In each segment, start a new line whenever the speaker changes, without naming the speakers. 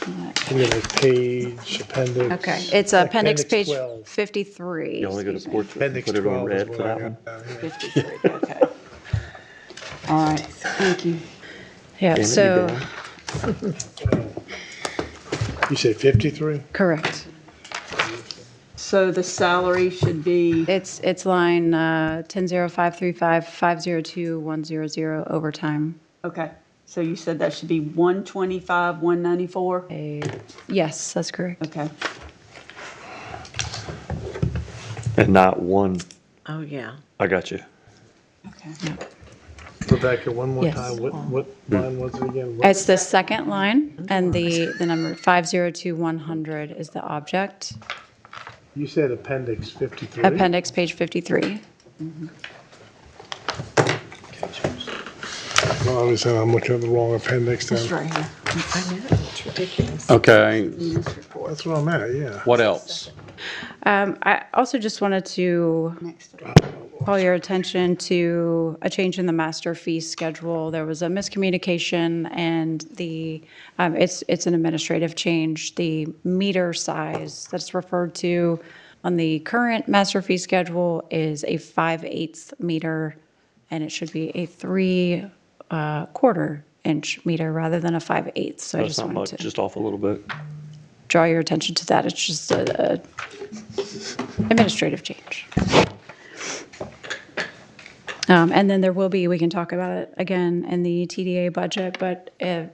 Beginning of page, appendix.
Okay, it's uh, appendix page
12.
53.
You only go to
excuse me.
portrait and
Appendix
put it on
12 is
red
what
for
I
that one.
got down here.
53, okay. All right, thank you. Yeah,
Damon, you
so,
down?
You said 53?
correct.
So the salary should be,
It's, it's line uh, 1005355021100 overtime.
okay, so you said that should be 125, 194?
A- Yes, that's correct.
Okay,
And not one,
Oh, yeah.
I got you.
okay.
Rebecca, one more
Yes.
time, what, what line was it again? What-
It's the second line, and the, the number 502100 is the object.
You said appendix 53?
Appendix, page 53.
Well, Obviously, I'm looking at the wrong appendix
It's
then.
right here. I know, it's ridiculous.
Okay,
That's what I'm at, yeah.
what else?
Um, I also just wanted to call your attention to a change in the master fee schedule. There was a miscommunication, and the, um, it's, it's an administrative change. The meter size that's referred to on the current master fee schedule is a 5 eighths meter, and it should be a 3 uh, quarter inch meter rather than a 5 eighths. So I
That's
just
not much,
wanted to
just off a little bit.
draw your attention to that. It's just a a administrative change. Um, And then there will be, we can talk about it again in the TDA budget, but uh,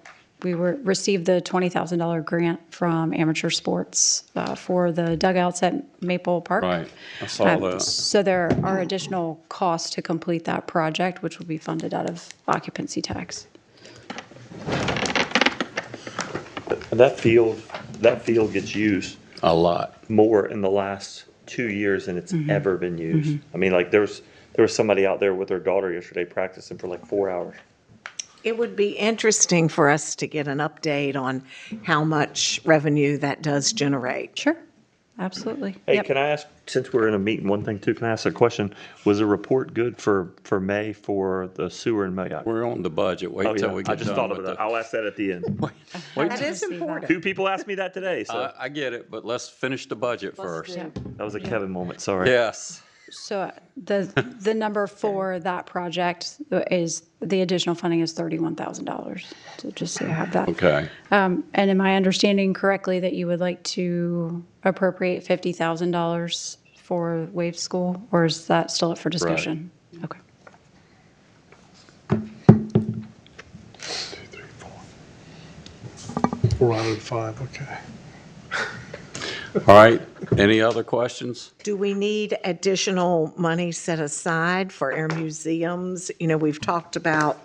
we were, received the $20,000 grant from Amateur Sports uh, for the dugouts at Maple Park.
Right, I saw
Um,
that.
So there are additional costs to complete that project, which will be funded out of occupancy tax.
And that field, that field gets used
A lot.
more in the last two years than it's
Mm-hmm.
ever been used. I mean, like, there was, there was somebody out there with their daughter yesterday practicing for like four hours.
It would be interesting for us to get an update on how much revenue that does generate.
Sure, absolutely.
Hey,
Yep.
can I ask, since we're in a meeting, one thing too, can I ask a question? Was the report good for, for May for the sewer and Mayock?
We're on the budget.
Oh,
Wait till we
yeah, I
get
just
done
thought
with
of that.
the.
I'll ask that at the end.
That is important.
Two people asked me that today, so
I, I get it, but let's finish the budget first.
Yep.
that was a Kevin moment, sorry.
Yes,
So uh, the, the number for that project is, the additional funding is $31,000, So just so you have that.
okay.
Um, And am I understanding correctly that you would like to appropriate $50,000 for Wave School? Or is that still up for discussion? Okay.
We're out of five, okay.
All right, any other questions?
Do we need additional money set aside for our museums? You know, we've talked about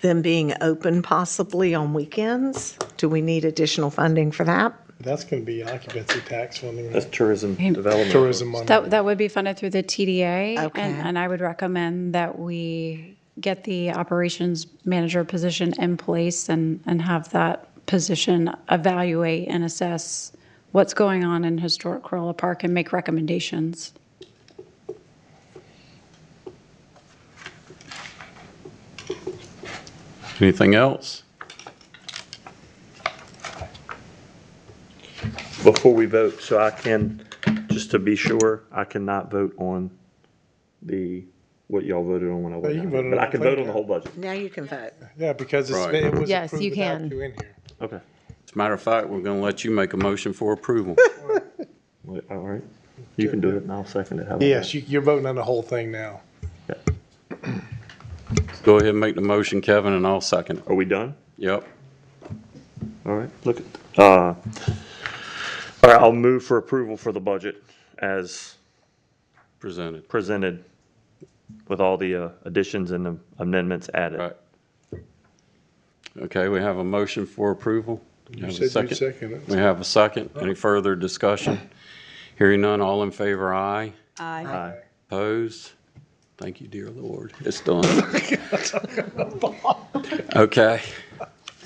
them being open possibly on weekends. Do we need additional funding for that?
That's going to be occupancy tax funding,
That's tourism development.
tourism money.
That, that would be funded through the TDA.
Okay.
And, and I would recommend that we get the operations manager position in place and, and have that position evaluate and assess what's going on in historic Corolla Park and make recommendations.
Anything else?
before we vote, so I can, just to be sure, I cannot vote on the, what y'all voted on when I
you
went
can
out.
vote on
But I
the
can
thing,
vote on the
yeah.
whole budget.
Now you can vote.
Yeah, because it's,
Right.
it was
Yes,
approved
you
without
can.
you in here.
Okay.
As a matter of fact, we're going to let you make a motion for approval.
Wait, All right. You can do it and I'll second it. How about
Yes, you- you're voting on the whole thing now.
that?
Go ahead and make the motion, Kevin, and I'll second. it.
Are we done?
Yep.
All right, look at, uh, all right, I'll move for approval for the budget as
Presented.
presented with all the uh, additions and amendments added.
Right. Okay, we have a motion for approval. We have a
You said you seconded
We
it.
have a second. Any further discussion? Hearing none, all in favor, aye.
Aye.
Aye.
Opposed? Thank you, dear Lord. It's done. Okay.